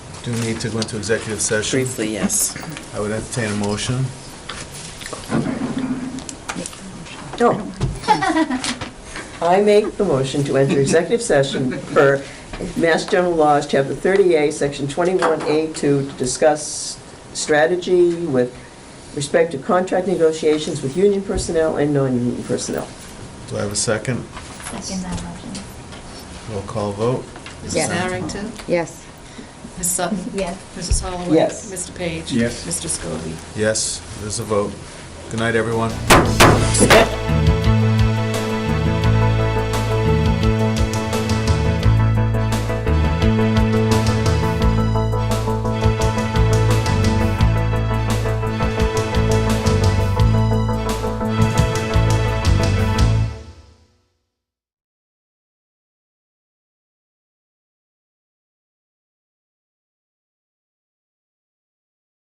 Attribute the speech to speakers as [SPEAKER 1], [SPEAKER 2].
[SPEAKER 1] do need to go into executive session.
[SPEAKER 2] Briefly, yes.
[SPEAKER 1] I would entertain a motion.
[SPEAKER 3] No. I make the motion to enter executive session per Mass General Laws, Chapter 30A, Section 21A2, to discuss strategy with respect to contract negotiations with union personnel and non-union personnel.
[SPEAKER 1] Do I have a second?
[SPEAKER 4] Second that motion.
[SPEAKER 1] Roll call vote.
[SPEAKER 5] Yes.
[SPEAKER 6] Mrs. Harrington?
[SPEAKER 5] Yes.
[SPEAKER 6] Ms. Sutton?
[SPEAKER 4] Yes.
[SPEAKER 6] Mrs. Holloway?
[SPEAKER 3] Yes.
[SPEAKER 6] Mr. Page?
[SPEAKER 7] Yes.
[SPEAKER 6] Mr. Scobie?
[SPEAKER 1] Yes, there's a vote. Good night, everyone.